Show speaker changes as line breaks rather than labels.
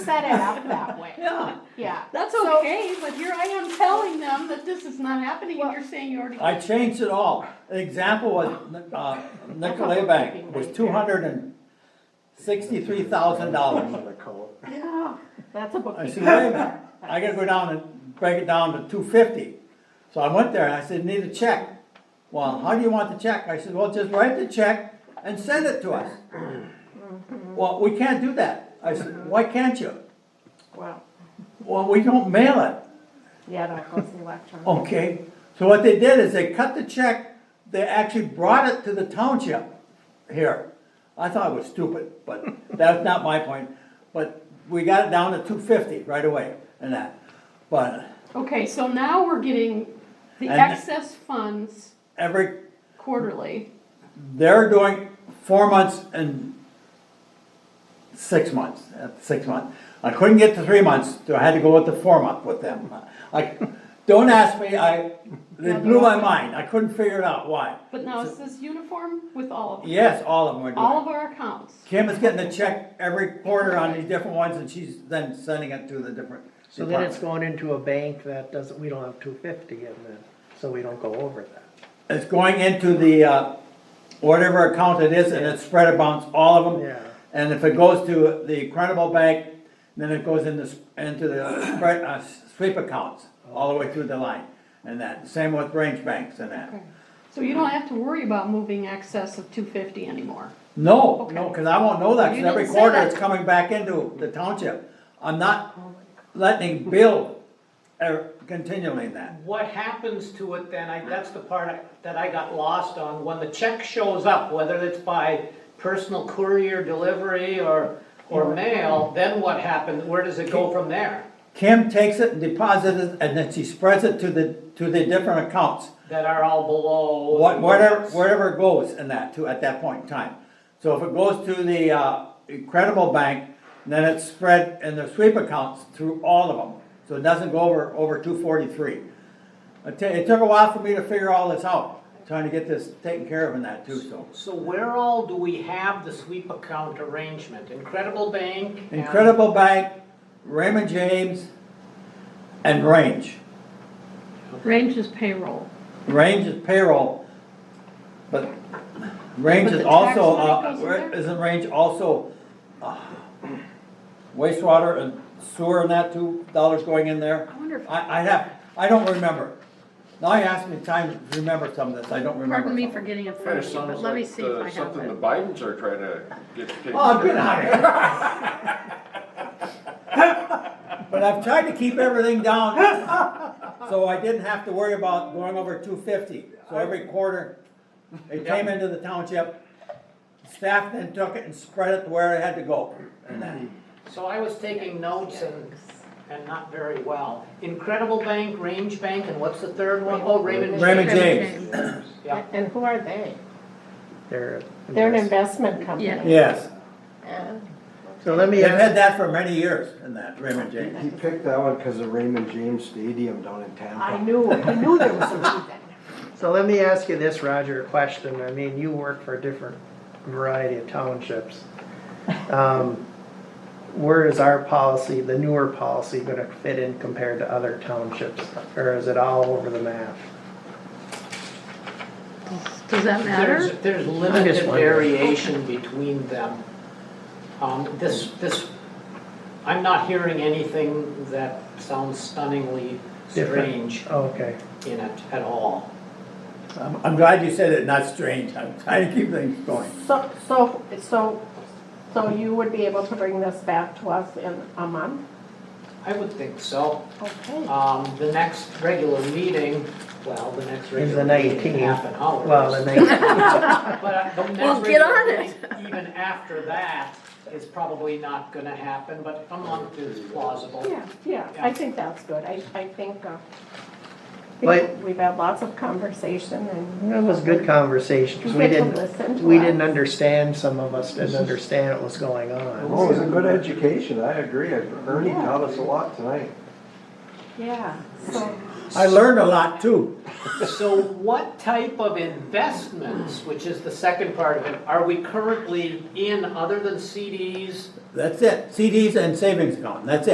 set it up that way.
Yeah,
Yeah.
that's
So-
okay, but here I am telling them that this is not happening and
Well-
you're saying you already.
I changed it all. An example was, uh, Nicolay Bank was two hundred and sixty-three thousand dollars.
Yeah,
That's a
I said,
bookkeeping.
wait a minute, I gotta go down and break it down to two fifty. So I went there and I said, need a check. Well, how do you want the check? I said, well, just write the check and send it to us. Well, we can't do that. I said, why can't you?
Wow.
Well, we don't mail it.
Yeah, no, it goes electronic.
Okay, so what they did is they cut the check, they actually brought it to the township here. I thought it was stupid, but that's not my point, but we got it down to two fifty right away and that, but
okay, so now we're getting the
And-
excess funds
every,
quarterly.
they're doing four months and six months, uh, six months. I couldn't get to three months, so I had to go with the four month with them. I, don't ask me, I, it blew my mind, I couldn't figure it out why.
But now is this uniform with all of them?
Yes, all of them are doing it.
All of our accounts?
Kim is getting a check every quarter on these different ones, and she's then sending it to the different
So then it's
departments.
going into a bank that doesn't, we don't have two fifty in then, so we don't go over that.
It's going into the, uh, whatever account it is, and it's spread amongst all of
Yeah.
them. And if it goes to the Credible Bank, then it goes into, s- into the spread, uh, sweep accounts, all the way through the line. And that, same with range banks and that.
So you don't have to worry about moving excess of two fifty anymore.
No, no, cause I won't know that, 'cause
You
every
didn't say
quarter
that.
it's coming back into the township. I'm not letting Bill uh, continually that.
What happens to it then, I, that's the part I- that I got lost on, when the check shows up, whether it's by personal courier delivery or, or mail, then what happens, where does it go from there?
Kim takes it and deposits it, and then she spreads it to the, to the different accounts,
That are all below.
what, whatever, wherever it goes in that, to, at that point in time. So if it goes to the, uh, Credible Bank, then it's spread in the sweep accounts through all of them, so it doesn't go over, over two forty-three. It ta- it took a while for me to figure all this out, trying to get this taken care of in that too, so.
So where all do we have the sweep account arrangement? Incredible Bank? and-
Incredible Bank, Raymond James, and Range.
Range is payroll.
Range is payroll, but Range
But
is
the tax
also,
money
uh,
goes in there?
isn't Range also uh, wastewater and sewer and that two dollars going in there?
I wonder if-
I, I have, I don't remember. Now you asked me time to remember some of this, I don't remember.
Pardon me
some.
for getting in
Kind
front
of
of you, but
sounds
let me
like
see if
uh,
I have
something the
it.
Bidens are trying to get taken
Oh,
care
get
of.
out of here. But I've tried to keep everything down, so I didn't have to worry about going over two fifty. So every quarter, it came into the township, staff then took it and spread it to where it had to go. And then-
So I was taking notes and, and not very well. Incredible Bank, Range Bank, and what's the third one? Oh, Raymond.
Raymond James.
Yeah.
And who are they?
They're.
They're an investment company.
Yes,
Yeah.
So let me
they've had
ask,
that for many years in that Raymond James.
He picked that one because of Raymond James Stadium down in
I
Tampa.
knew, I knew there was a reason.
so let me ask you this, Roger, a question. I mean, you work for a different variety of townships. Um, Where is our policy, the newer policy, gonna fit in compared to other townships? Or is it all over the map?
Does that matter?
There's, there's limited
wondering.
variation between them. Um, this, this, I'm not hearing anything that sounds stunningly
Different.
strange
Okay.
in it at all.
I'm, I'm glad you said it, not strange. I'm trying to keep things going.
So, so, so, so you would be able to bring this back to us in a month?
I would think so.
Okay.
Um, the next regular meeting, well, the next regular meeting,
19th.
in half an hour.
Well, the
But
next,
uh, the next
Well, get on
regular
it.
meeting, Even after that is probably not gonna happen, but a month is plausible.
Yeah, yeah, I think that's good. I, I think, uh, I
But-
think we've had lots of conversation and
That was good conversation, 'cause we
You get to listen
didn't,
to
we
us.
didn't understand, some of us didn't understand what was going on.
Oh, it was a good education, I agree. Ernie taught us a lot tonight.
Yeah, so,
I learned a lot too.
So what type of investments, which is the second part of it, are we currently in other than CDs?
That's it, CDs and savings account, that's it.